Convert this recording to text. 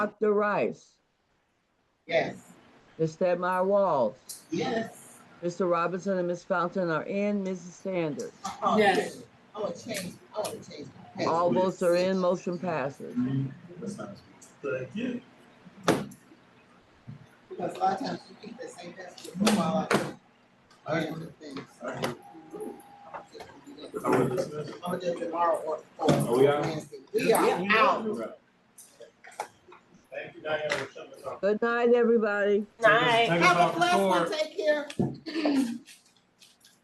Dr. Rice, Yes. Ms. Stedmeyer Walls, Yes. Mr. Robinson and Ms. Fountain are in, Mrs. Sanders. Oh, Yes. I want to change, I want to change. my All password. votes are in, motion passes. Second. Because a lot of times you keep the same password for a while, I think. I have other things. I will dismiss. I'm gonna do it tomorrow or, or. Are we out? Wednesday. We are out. Thank you, Diane, for shutting us off. Good night, everybody. Night. Have a blessed one, take care.